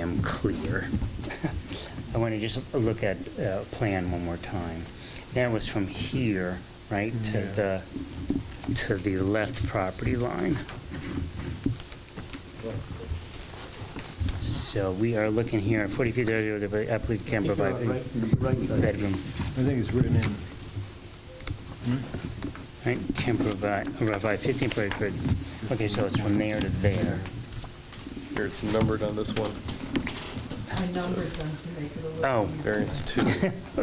am clear. I want to just look at uh, plan one more time. That was from here, right, to the, to the left property line. So we are looking here, 40 feet, area of the applicant can provide Right, right side. bedroom, I think it's written in. right, can provide, provide 15 per foot. Okay, so it's from there to there. Here, it's numbered on this one, I numbered them to make it a little. Oh, easier. variance two.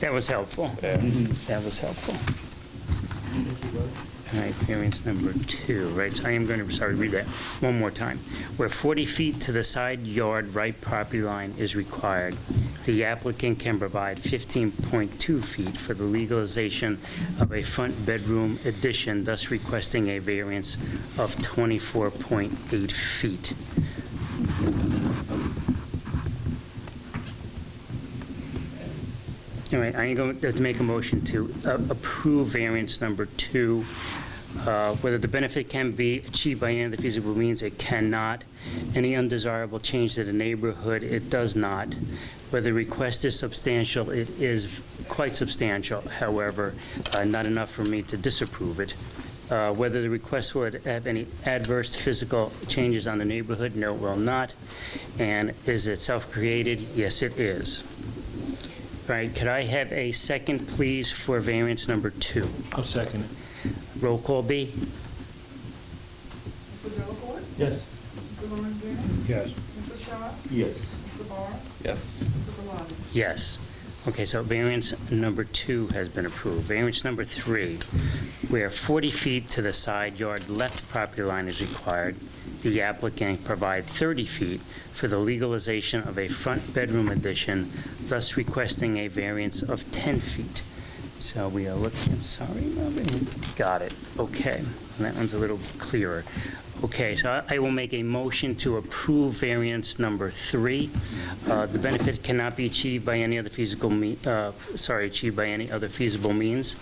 that was helpful. Mm-hmm. That was helpful. All right, variance number two, right, so I am going to, sorry, read that one more time. Where 40 feet to the side yard right property line is required, the applicant can provide 15.2 feet for the legalization of a front bedroom addition, thus requesting a variance of 24.8 feet. All right, I'm going to make a motion to uh, approve variance number two. Uh, Whether the benefit can be achieved by any of the feasible means, it cannot. Any undesirable change to the neighborhood, it does not. Whether the request is substantial, it is quite substantial, however, uh, not enough for me to disapprove it. Uh, Whether the request would have any adverse physical changes on the neighborhood, no, it will not. And is it self-created? Yes, it is. All right, could I have a second, please, for variance number two? I'll second it. Roll call B? Mr. Delacorte? Yes. Mr. Lorenzini? Yes. Mr. Shaw? Yes. Mr. Barr? Yes. Mr. Belli? Yes. Okay, so variance number two has been approved. Variance number three, where 40 feet to the side yard left property line is required, the applicant provide 30 feet for the legalization of a front bedroom addition, thus requesting a variance of 10 feet. So we are looking, sorry, Melvin, got it, okay. That one's a little clearer. Okay, so I I will make a motion to approve variance number three. Uh, The benefit cannot be achieved by any other feasible, me- uh, sorry, achieved by any other feasible means.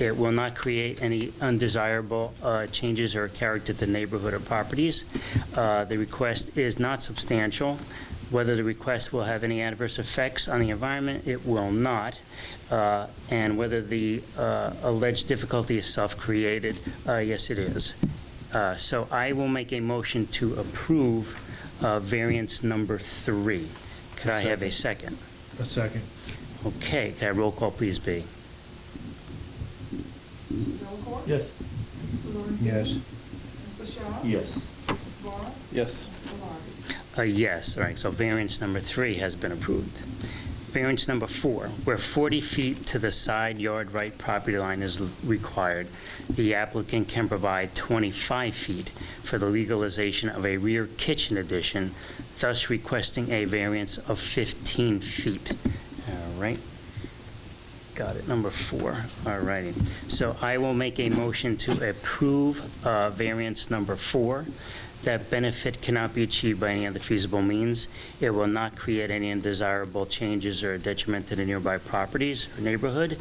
It will not create any undesirable uh, changes or character to neighborhood or properties. Uh, The request is not substantial. Whether the request will have any adverse effects on the environment, it will not. Uh, And whether the uh, alleged difficulty is self-created, uh, yes, it is. Uh, So I will make a motion to approve uh, variance number three. Could I have a second? A second. Okay, could I roll call please be? Mr. Delacorte? Yes. Mr. Lorenzini? Yes. Mr. Shaw? Yes. Mr. Barr? Yes. Mr. Belli? A Uh, yes, all right, so variance number three has been approved. Variance number four, where 40 feet to the side yard right property line is l- required, the applicant can provide 25 feet for the legalization of a rear kitchen addition, thus requesting a variance of 15 feet. All right, Got it, number four, all righty. So I will make a motion to approve uh, variance number four, that benefit cannot be achieved by any other feasible means. It will not create any undesirable changes or detriment to the nearby properties or neighborhood.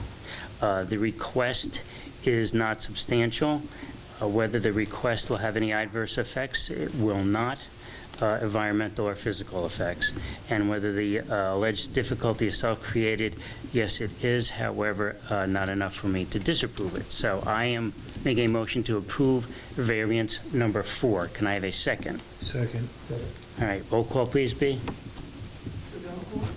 Uh, The request is not substantial. Uh, Whether the request will have any adverse effects, it will not uh, environmental or physical effects, and whether the uh, alleged difficulty is self-created, yes, it is, however, uh, not enough for me to disapprove it. So I am making a motion to approve variance number four. Can I have a second? Second. All right, roll call, please, B. Mr. Delacorte?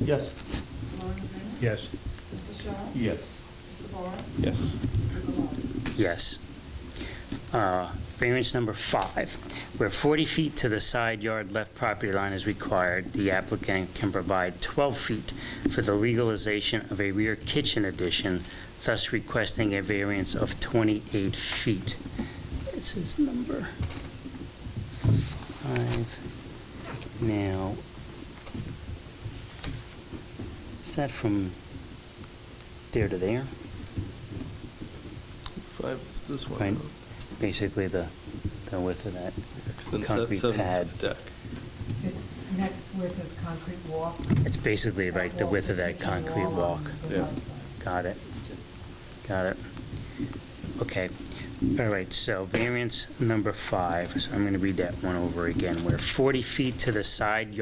Yes. Mr. Lorenzini? Yes. Mr. Shaw? Yes. Mr. Barr? Yes. Mr. Belli? Yes. Uh, Variance number five, where 40 feet to the side yard left property line is required, the applicant can provide 12 feet for the legalization of a rear kitchen addition, thus requesting a variance of 28 feet. This is number five. Now, is that from there to there? Five is this Right. one, basically the, the width of that. because then se- Concrete seven's the pad. deck. It's next where it says concrete walk. It's basically like the width of that concrete walk. on the Yeah. left side. Got it. Got it. Okay. All right, so variance number five, so I'm going to read that one over again, where 40 feet to the side yard